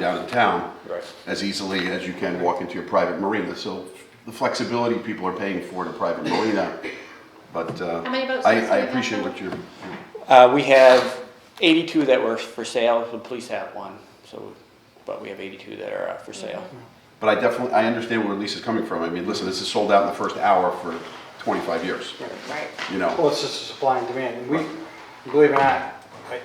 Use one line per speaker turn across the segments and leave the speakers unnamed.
down in town
Right.
as easily as you can walk into your private marina. So the flexibility people are paying for in a private marina, but uh,
How many boats
I,
do you
I
have
appreciate
now?
what you're,
Uh, we have eighty-two that were for sale, the police have one, so, but we have eighty-two that are up for sale.
but I definitely, I understand where Lisa's coming from. I mean, listen, this is sold out in the first hour for 25 years,
Right.
you know?
Well, it's just a supply and demand, and we, believe it or not, I-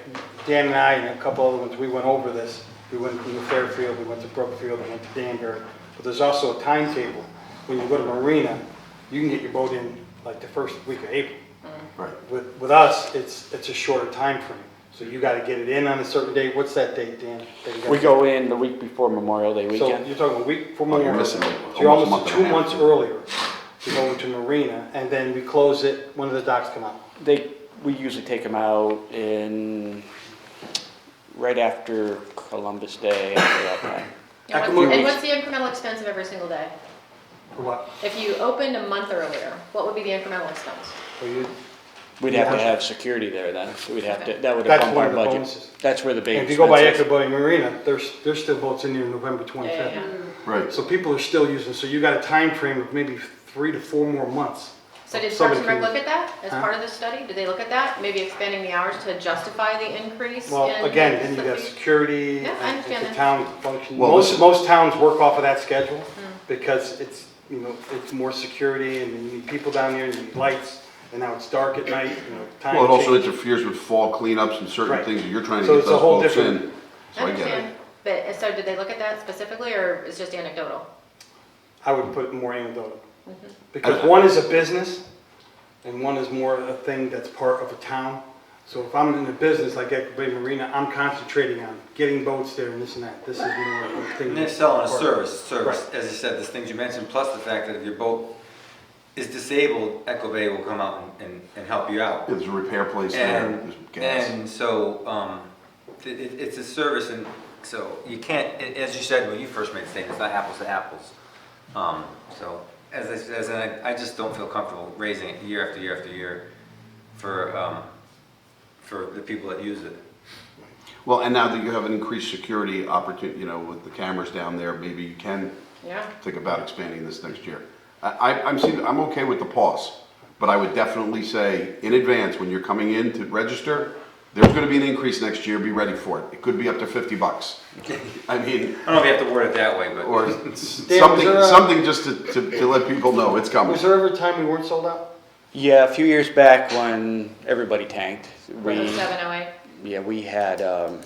Dan and I and a couple other ones, we went over this. We went to Fairfield, we went to Brookfield, we went to Danbury, but there's also a timetable. When you go to Marina, you can get your boat in like the first week of April.
Right.
With, with us, it's, it's a shorter time frame. so you gotta get it in on a certain date, what's that date, Dan? that you gotta-
We go in the week before Memorial Day
so
weekend.
you're talking a week, four
Oh, you're
months,
missing
so
almost
you're
a
almost
month
two
and a half.
months earlier to go into Marina, and then we close it when the docks come out.
They, we usually take them out in, right after Columbus Day, after that time.
And
I
what's-
can move-
and what's the incremental expense of every single day?
For what?
If you opened a month earlier, what would be the incremental expense?
For you?
We'd have to have security there then, we'd have to, that would
That's
bump
one
our
of the
budget.
bonuses.
That's where the big
If you go by
expense is.
Echo Bay Marina, there's, there's still boats in there November twenty-fifth.
Right.
So people are still using, so you got a time frame of maybe three to four more months.
So did Parks
Somebody
and Rec
can-
look at that as
Huh?
part of this study? Did they look at that? Maybe expanding the hours to justify the increase?
Well,
in
again, then you
the
got
fee?
security,
Yeah, I
and if
understand
the
that.
town function,
Well,
most,
listen-
most towns work off of that schedule,
Mm.
because it's, you know, it's more security, and you need people down there, you need lights, and now it's dark at night, you know, time
Well, it also
change.
interferes with fall cleanups and certain
Right.
things that you're trying to
So
get
it's a
those
whole
boats
different-
in. So
I
I get
understand,
it.
but, so did they look at that specifically, or is just anecdotal?
I would put more anecdotal.
Mm-hmm.
Because one is a business, and one is more a thing that's part of a town. So if I'm in a business like Echo Bay Marina, I'm concentrating on getting boats there and this and that. This is more of a thing.
And they're selling a service, service, as you said, those things you mentioned, plus the fact that if your boat is disabled, Echo Bay will come out and- and, and help you out.
There's a repair place there,
And,
there's gas.
and so, um, it, it- it's a service and so you can't, a- as you said when you first made the statement, it's not apples to apples. Um, so, as I, said, as I, I just don't feel comfortable raising it year after year after year for, um, for the people that use it.
Well, and now that you have an increased security opportunity, you know, with the cameras down there, maybe you can
Yeah.
think about expanding this next year. I, I- I'm, seeing- I'm okay with the pause, but I would definitely say in advance, when you're coming in to register, there's gonna be an increase next year, be ready for it. It could be up to fifty bucks. I mean,
I don't know if you have to word it that way, but.
or
there
something,
a-
something just to, to, to let people know it's coming.
Was there ever a time we weren't sold out?
Yeah, a few years back when everybody tanked, we,
Seven oh eight?
yeah, we had, um,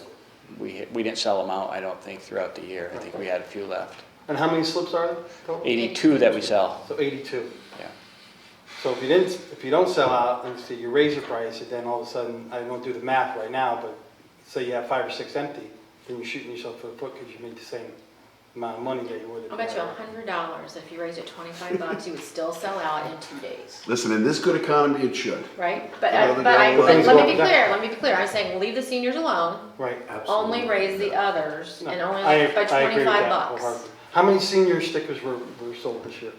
we, we didn't sell them out, I don't think, throughout the year. I think we had a few left.
And how many slips are there total?
82 that we sell,
So 82.
yeah.
So if you didn't, if you don't sell out, and say you raise your price, and then all of a sudden, I won't do the math right now, but say you have five or six empty, then you're shooting yourself in the foot because you made the same amount of money that you would have.
I'll bet you a hundred dollars, if you raised it twenty-five bucks, you would still sell out in two days,
Listen, in this good economy, it should.
right? But,
Well,
I-
the
but I,
down-
but let me be
Things go up.
clear, let me be clear, I'm saying leave the seniors alone,
Right. Uh,
only raise the others,
No,
and only
I-
by
I agree with
twenty-five
that
bucks.
wholeheartedly. How many senior stickers were, were sold this year?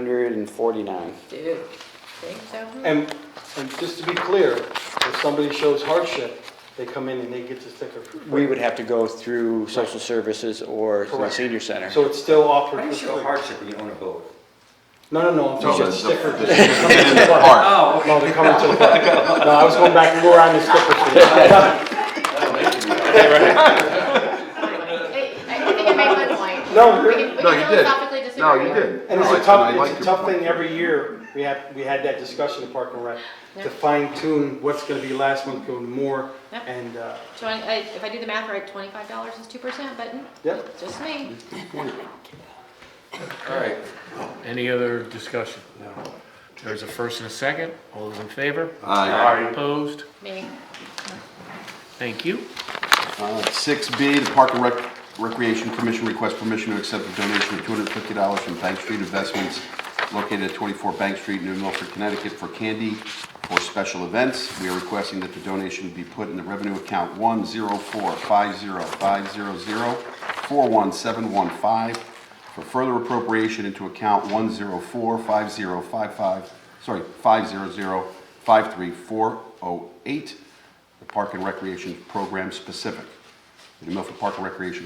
349.
Dude, think so? Hmm.
And, and just to be clear, if somebody shows hardship, they come in and they get the sticker. for free.
We would have to go through social services or the
Correct.
senior center.
So it's still offered.
How do you
for
show
free.
hardship when you own a boat?
No, no, no, I'm
No,
talking
the-
about sticker.
the-
They're coming to the bar.
Park.
No, they're coming to the park. No, I was going back more on the sticker sheet.
Anyway, I I think I made my point.
No,
We can, we
No,
can
you did.
philosophically disagree.
No, you did.
And it's
No, Oh, I-
a
I
tough,
like
it's a
your
tough
point.
thing every year. We had, we had that discussion at Park and Rec
Yeah.
to fine tune what's gonna be last, what's going more,
Yeah.
and, uh,
So I- I- if I do the math right, twenty-five dollars is two percent, but mm,
yep.
just me.
All right,
Any other discussion? There's a first and a second. All those in favor?
Aye.
Opposed?
Me.
Thank you.
Six B, the Park and Rec- Recreation Commission requests permission to accept a donation of two hundred and fifty dollars from Bank Street Investments located at twenty-four Bank Street, New Milford, Connecticut, for candy for special events. We are requesting that the donation be put in the revenue account one zero four five zero five zero zero four one seven one five for further appropriation into account one zero four five zero five five, sorry, five zero zero five three four oh eight the Park and Recreation Program specific. The Milford Park and Recreation